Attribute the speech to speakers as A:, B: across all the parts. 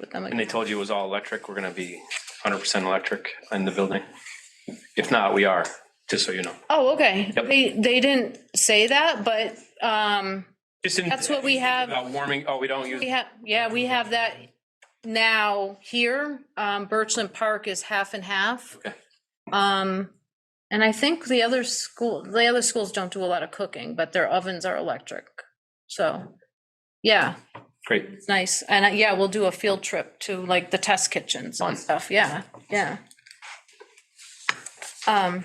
A: with them.
B: And they told you it was all electric, we're gonna be hundred percent electric in the building. If not, we are, just so you know.
A: Oh, okay.
B: Yep.
A: They, they didn't say that, but, um,
B: Just in.
A: That's what we have.
B: About warming, oh, we don't use,
A: we have, yeah, we have that now here. Um, Birchland Park is half and half.
B: Okay.
A: Um, and I think the other school, the other schools don't do a lot of cooking, but their ovens are electric. So, yeah,
B: great,
A: it's nice. And uh, yeah, we'll do a field trip to like the test kitchens
B: Fun.
A: and stuff. Yeah, yeah. Um,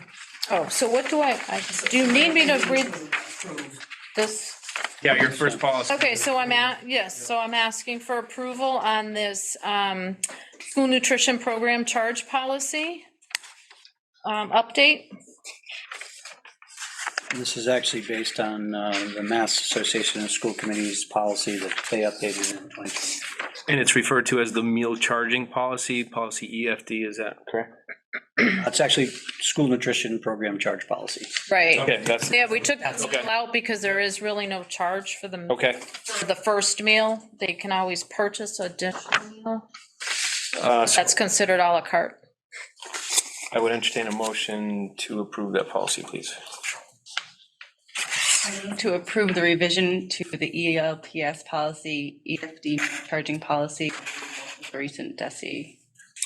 A: oh, so what do I, I, do you need me to read this?
B: yeah, your first policy.
A: Okay, so I'm at, yes, so I'm asking for approval on this um, school nutrition program charge policy um, update.
C: This is actually based on uh, the Mass Association of School Committees policy that they updated in 2020.
B: And it's referred to as the meal charging policy, policy EFD, is that correct?
C: It's actually school nutrition program charge policy.
A: Right.
B: Okay, that's,
A: Yeah, we took that
B: Okay.
A: meal out because there is really no charge for the,
B: okay.
A: for the first meal. They can always purchase a additional meal.
B: Uh, so
A: That's considered à la carte.
B: I would entertain a motion to approve that policy, please.
D: To approve the revision to the E ELPS policy, EFD charging policy, the recent DESI.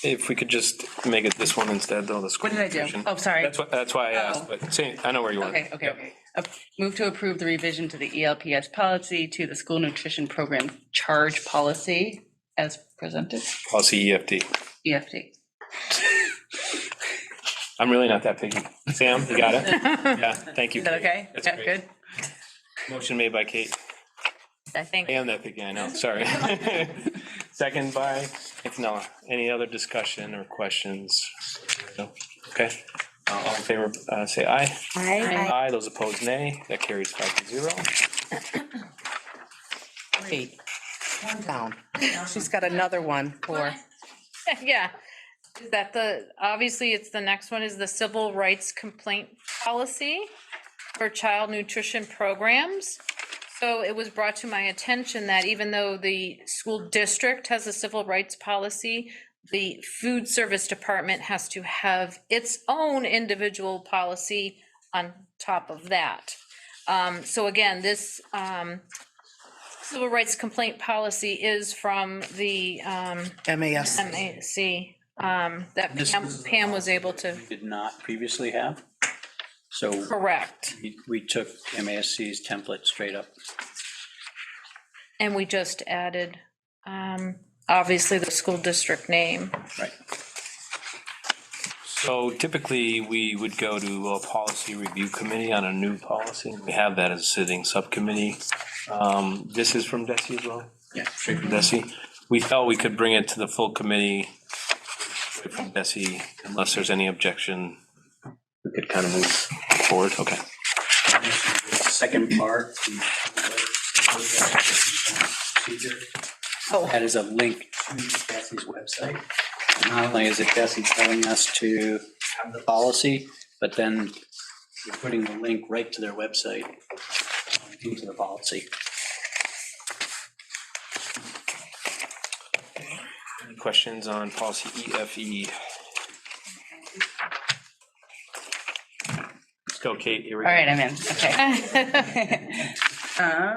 B: If we could just make it this one instead, though, the school.
D: What did I do?
B: nutrition.
D: Oh, sorry.
B: That's what, that's why I
D: Oh.
B: asked, but same, I know where you want.
D: Okay, okay, okay. Ap- Move to approve the revision to the E ELPS policy to the school nutrition program charge policy as presented, E
B: Policy E EFD.
D: EFD.
B: I'm really not that picky. Sam, you got it? Yeah, thank you.
D: Is that okay?
B: That's
D: Yeah,
B: great.
D: Good?
B: Motion made by Kate.
A: I think
B: I am that picky, I know, sorry. Second by Antonella. Any other discussion or questions? No? Okay. Uh, All in favor, uh, say aye.
A: Aye.
B: Aye, those opposed, nay. That carries five to zero.
E: Great. One down. Now she's got another one for,
A: Yeah, Is that the, obviously, it's the next one is the civil rights complaint policy for child nutrition programs. So it was brought to my attention that even though the school district has a civil rights policy, the food service department has to have its own individual policy on top of that. Um, so again, this, um, civil rights complaint policy is from the, um,
E: MAS.
A: MAC, um, that
C: This
A: Pam,
C: is-
A: Pam was able to
C: Did not previously have. So
A: correct,
C: we- we took MASC's template straight up.
A: and we just added, um, obviously the school district name.
C: Right.
B: So typically, we would go to a policy review committee on a new policy. We have that as a sitting subcommittee. Um, This is from Desi as well?
C: Yeah.
B: Straight from Desi. We felt we could bring it to the full committee straight from Desi unless there's any objection. We could kind of move forward, okay.
C: Second part. the- That is a link to Bessie's website. Not only is it Bessie telling us to have the policy, but then you're putting the link right to their website into the policy.
B: Any Questions on policy E EFE? Let's go, Kate, here we go.
D: All right, I'm in, okay. Uh,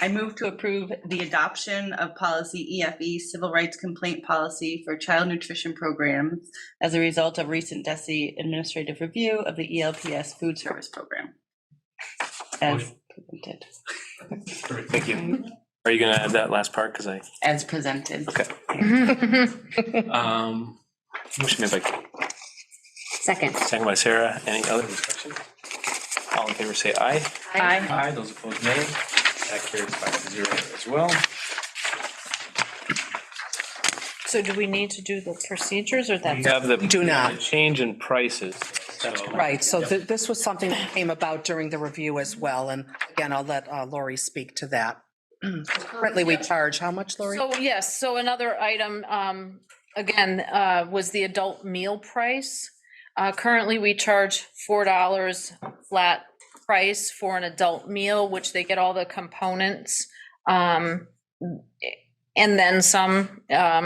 D: I move to approve the adoption of policy EFE Civil Rights Complaint Policy for Child Nutrition Programs as a result of recent DESI administrative review of the E ELPS Food Service Program. As presented.
B: Thank you. Are you gonna add that last part? Because I.
D: As presented.
B: Okay. Um, Motion made by Kate,
F: Second.
B: second by Sarah. Any other discussion? All in favor, say aye.
A: Aye.
B: Aye. Those opposed, nay. That carries five to zero as well.
A: So do we need to do the procedures or
B: We
A: that's
B: have the.
E: Do not.
B: Change in prices. So
E: Right, so th- this was something that came about during the review as well, and again, I'll let uh, Lori speak to that. Currently, we charge, how much, Lori?
A: So, yes, so another item, um, again, uh, was the adult meal price. Uh, currently, we charge four dollars flat price for an adult meal, which they get all the components. Um, and then some, um,